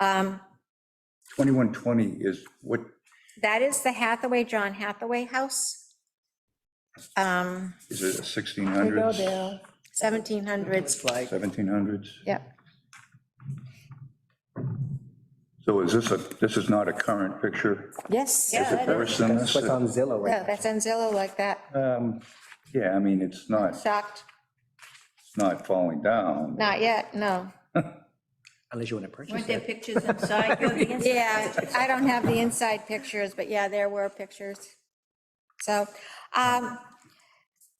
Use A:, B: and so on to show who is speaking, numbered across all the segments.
A: Um,
B: 2120 is what,
A: That is the Hathaway, John Hathaway House. Um,
B: is it
C: We go
B: 1600s,
C: there.
A: 1700s.
C: It's like,
B: 1700s?
A: Yep.
B: So is this a, this is not a current picture?
C: yes.
A: Yeah,
B: Is it
A: that
B: worse than this?
D: That's what's on Zillow right
A: No, that's on Zillow like that,
B: Um, Yeah, I mean, it's not,
A: shocked.
B: it's not falling down.
A: Not yet, no.
D: unless you want to purchase
E: Weren't there
D: it.
E: pictures inside? Go to the inside.
A: Yeah, I don't have the inside pictures, but yeah, there were pictures. So um,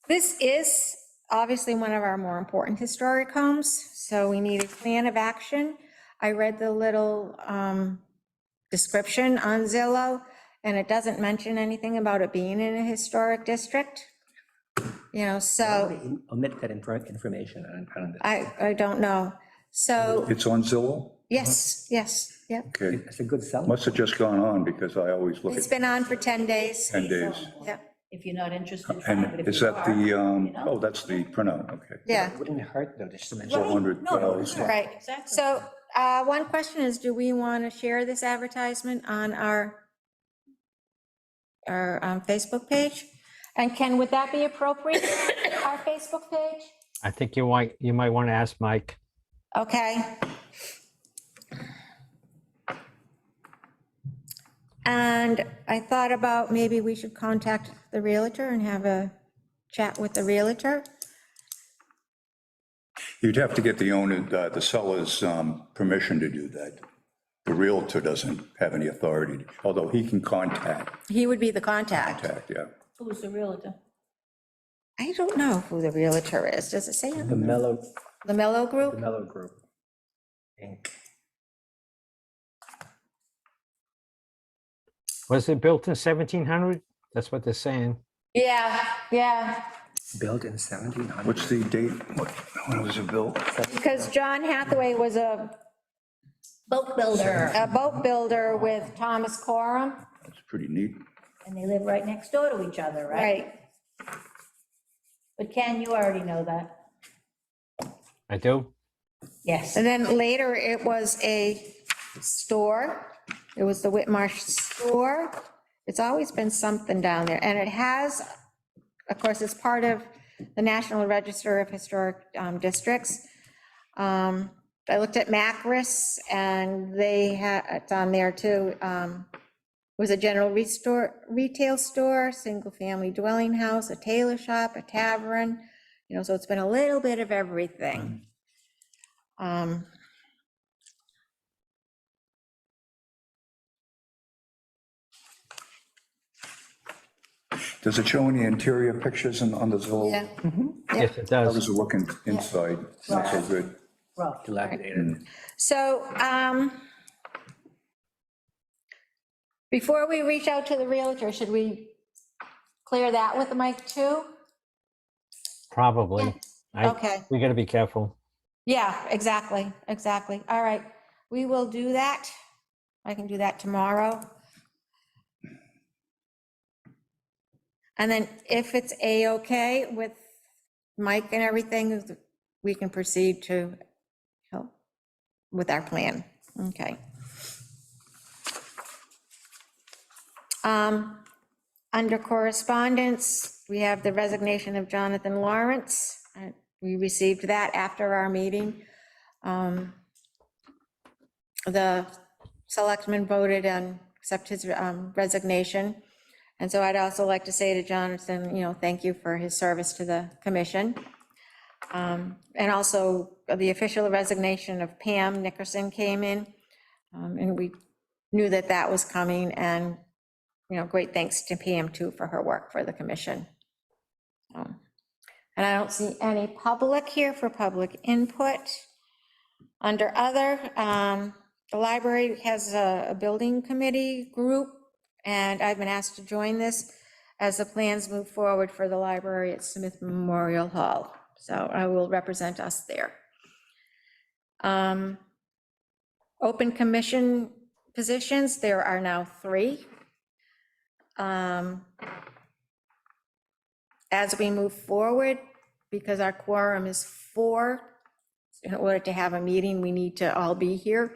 A: this is obviously one of our more important historic homes, so we need a plan of action. I read the little um, description on Zillow, and it doesn't mention anything about it being in a historic district. You know, so
D: Omit that infor- information. and- and-
A: I, I don't know. So,
B: It's on Zillow?
A: yes, yes, yep.
B: Okay,
D: It's a good seller.
B: must have just gone on because I always look
A: It's
B: at
A: been on for 10 days.
B: 10 days.
A: Yep.
E: If you're not interested, fine, but
B: And
E: if
B: is
E: you
B: that
E: are,
B: the,
E: you
B: um,
E: know.
B: oh, that's the printout, okay.
A: Yeah,
D: Wouldn't hurt though, just to mention.
B: Four hundred
E: No, no,
B: dollars.
E: it's all
A: Right.
E: Exactly.
A: so uh, one question is, do we want to share this advertisement on our, our um, Facebook page? And can, would that be appropriate, our Facebook page?
F: I think you might, you might want to ask Mike.
A: Okay. And I thought about maybe we should contact the Realtor and have a chat with the Realtor.
B: You'd have to get the owner, uh, the seller's um, permission to do that. The Realtor doesn't have any authority, although he can contact,
A: He would be the contact.
B: contact, yeah.
E: Who's the realtor?
A: I don't know who the Realtor is. Does it say? on
D: The Mellow,
A: The Mello
D: the
A: Group?
D: Mellow Group. Inc.
F: Was it built in 1700? That's what they're saying.
A: Yeah, yeah,
D: Built in 1700.
B: What's the date? What- When was it built?
A: because John Hathaway was a,
E: Boat builder.
A: a boat builder with Thomas Coram.
B: It's pretty neat.
E: And they live right next door to each other, right? But Ken, you already know that.
F: I do.
E: Yes.
A: And then later it was a store. It was the Whitmarsh store. It's always been something down there. And it has, of course, it's part of the National Register of Historic um, Districts. Um, I looked at Macris and they had, it's on there too. um, It was a general restore, retail store, single-family dwelling house, a tailor shop, a tavern, you know, so it's been a little bit of everything. Um,
B: Does it show any interior pictures on on the Zillow?
A: Yeah, Yeah.
F: Yes, it
B: How
F: does.
B: does it look in- inside? Not so good.
E: Rough.
D: Dilapidated.
A: so, um, before we reach out to the realtor, should we clear that with Mike too?
F: Probably. I,
A: Okay,
F: we gotta be careful.
A: yeah, exactly, exactly. All right, we will do that. I can do that tomorrow. And then if it's A-okay with Mike and everything, we can proceed to help with our plan. Okay. Um, Under correspondence, we have the resignation of Jonathan Lawrence. Uh, We received that after our meeting. Um, The selectmen voted and accept his um, resignation. And so I'd also like to say to Jonathan, you know, thank you for his service to the commission. Um, And also, the official resignation of Pam Nickerson came in, um, and we knew that that was coming, and, you know, great thanks to Pam too for her work for the commission. Um, And I don't see any public here for public input. Under other, um, the library has a a building committee group, and I've been asked to join this as the plans move forward for the library at Smith Memorial Hall. So I will represent us there. Um, Open commission positions, there are now three. Um, As we move forward, because our quorum is four, in order to have a meeting, we need to all be here.